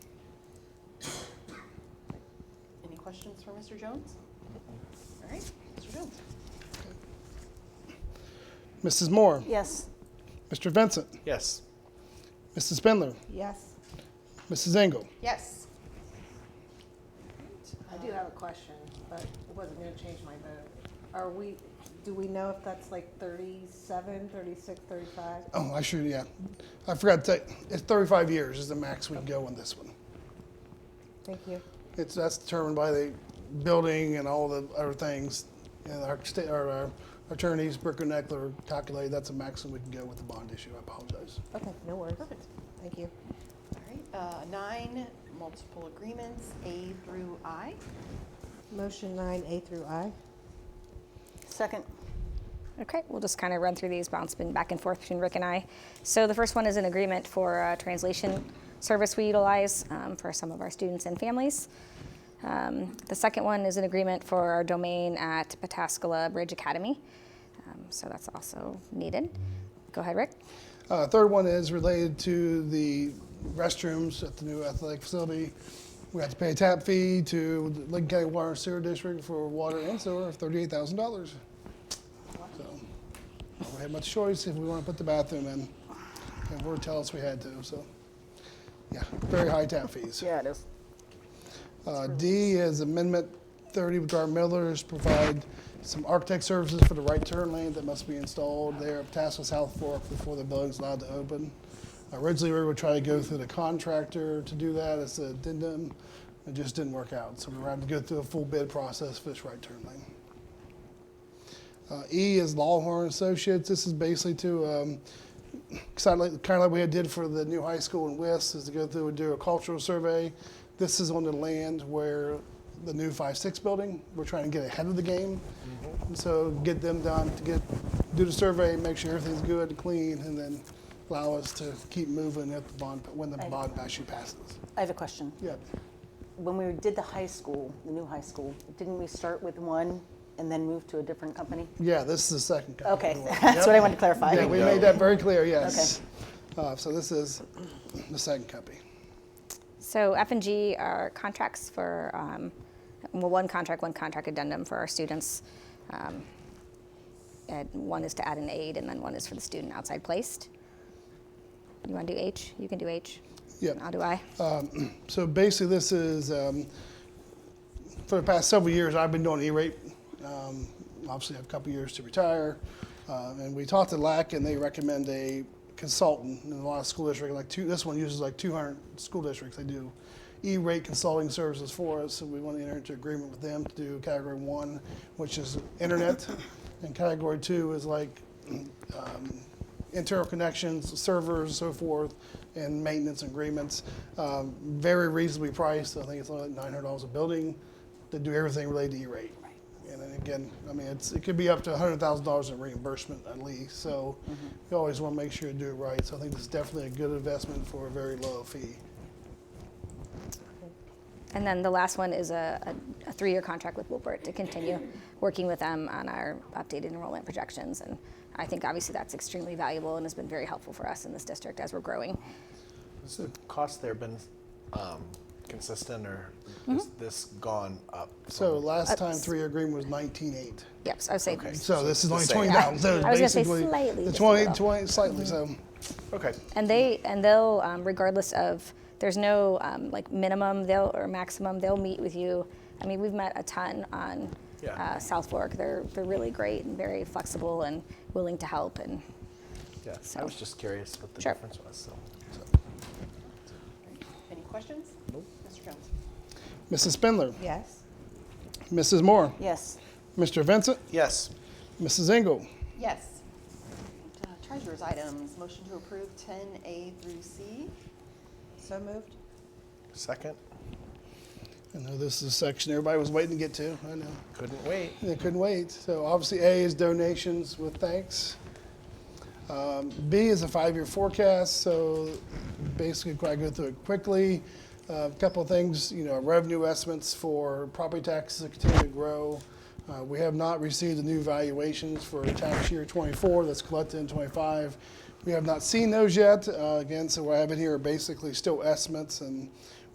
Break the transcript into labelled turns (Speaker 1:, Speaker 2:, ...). Speaker 1: Questions for Mr. Jones? All right, Mr. Jones?
Speaker 2: Mrs. Moore,
Speaker 3: Yes.
Speaker 2: Mr. Vincent,
Speaker 4: Yes.
Speaker 2: Mrs. Spindler,
Speaker 3: Yes.
Speaker 2: Mrs. Engel.
Speaker 1: Yes.
Speaker 3: I do have a question, but I wasn't gonna change my vote. Are we, do we know if that's like 37, 36, 35?
Speaker 2: Oh, I should, yeah. I forgot to, tell- it's 35 years is the max we can go on this one.
Speaker 3: Thank you.
Speaker 2: It's, that's determined by the building and all the other things. And our, sta- our, our attorneys, Bricker Neckler, calculated that's the maximum we can go with the bond issue. I apologize.
Speaker 3: Okay, no worries.
Speaker 1: Perfect.
Speaker 3: Thank you.
Speaker 1: All right, uh, nine, multiple agreements, A through I.
Speaker 3: Motion nine, A through I.
Speaker 1: Second.
Speaker 5: Okay, we'll just kind of run through these, bounce been back and forth between Rick and I. So the first one is an agreement for a translation service we utilize um, for some of our students and families. Um, the second one is an agreement for our domain at Pataskala Bridge Academy. Um, so that's also needed. Go ahead, Rick.
Speaker 2: Uh, third one is related to the restrooms at the new athletic facility. We have to pay a tap fee to the Lincoln County Water and Sewer District for water and sewer of thirty-eight thousand dollars. So, we don't have much choice if we want to put the bathroom in, and we're telling us we had to, so. Yeah, very high tap fees.
Speaker 3: Yeah, it is.
Speaker 2: Uh, D is Amendment 30 with our Millers, provide some architect services for the right turn lane that must be installed there at Tasco South Fork before the building's allowed to open. Originally, we were trying to go through the contractor to do that as an addendum. It just didn't work out, so we were having to go through a full bid process for this right turn lane. Uh, E is Lawhorn Associates. This is basically to, um, kind of like, kind of like we had did for the new high school in West, is to go through and do a cultural survey. This is on the land where the new five six building. We're trying to get ahead of the game, and so get them done to get do the survey, make sure everything's good and clean, and then allow us to keep moving at the bond when the bond actually passes.
Speaker 6: I have a question.
Speaker 2: Yeah,
Speaker 6: When we did the high school, the new high school, didn't we start with one and then move to a different company?
Speaker 2: yeah. This is the second. copy.
Speaker 6: Okay,
Speaker 2: Yep.
Speaker 6: that's what I wanted to clarify.
Speaker 2: Yeah, we made that very clear. Yes. Uh, so this is the second copy.
Speaker 5: So F and G are contracts for, um, well, one contract, one contract addendum for our students. Um, and one is to add an aid, and then one is for the student outside placed. You want to do H? You can do H.
Speaker 2: Yep.
Speaker 5: I'll do I.
Speaker 2: So basically, this is um, for the past several years I've been doing E-rate. Um, obviously, I have a couple years to retire, uh, and we talked to LAC, and they recommend a consultant. And a lot of school districts, like two, this one uses like 200 school districts. They do E-rate consulting services for us, so we want to enter into agreement with them to do category one, which is internet, and category two is like internal connections, servers, so forth, and maintenance agreements. Um, very reasonably priced. I think it's only like nine hundred dollars a building to do everything related to E-rate. And then again, I mean, it's, it could be up to hundred thousand dollars in reimbursement at least. So
Speaker 5: Mm-hmm.
Speaker 2: you always want to make sure you do it right. So I think this is definitely a good investment for a very low fee.
Speaker 5: And then the last one is a, a, a three-year contract with Wilbert to continue working with them on our updated enrollment projections. And I think obviously that's extremely valuable and has been very helpful for us in this district as we're growing.
Speaker 4: Has the cost there been um, consistent or
Speaker 5: Mm-hmm.
Speaker 4: has this gone up?
Speaker 2: So
Speaker 4: from-
Speaker 2: last time three-year agreement was nineteen eight.
Speaker 5: Yep, so I would say
Speaker 4: Okay.
Speaker 2: So this is
Speaker 4: The
Speaker 2: only
Speaker 4: same.
Speaker 2: twenty thousand.
Speaker 5: I was gonna say slightly,
Speaker 2: The
Speaker 5: just a little. Mm-hmm.
Speaker 2: 20 20 slightly, so.
Speaker 4: Okay.
Speaker 5: And they and they'll um, regardless of there's no um, like minimum they'll or maximum they'll meet with you. I mean we've met a ton on
Speaker 4: Yeah.
Speaker 5: uh, South Fork. They're they're really great and very flexible and willing to help. And
Speaker 4: Yeah. I
Speaker 5: So-
Speaker 4: was just curious what the
Speaker 5: Sure.
Speaker 4: difference was. So.
Speaker 1: Any questions? Nope. Mr. Jones?
Speaker 2: Mrs. Spindler,
Speaker 3: Yes.
Speaker 2: Mrs. Moore,
Speaker 6: Yes,
Speaker 2: Mr. Vincent,
Speaker 4: Yes.
Speaker 2: Mrs. Engel.
Speaker 1: Yes. Uh, Treasurer's items, motion to approve ten A through C.
Speaker 3: So moved?
Speaker 4: Second.
Speaker 2: I know this is a section everybody was waiting to get to. I know.
Speaker 4: Couldn't wait.
Speaker 2: They couldn't wait. So obviously A is donations with thanks. Um, B is a five-year forecast, so basically I go through it quickly. Uh, A couple of things, you know, revenue estimates for property taxes that continue to grow. Uh, we have not received the new valuations for tax year 24 that's collected in 25. We have not seen those yet. Uh, again, so what I have in here are basically still estimates and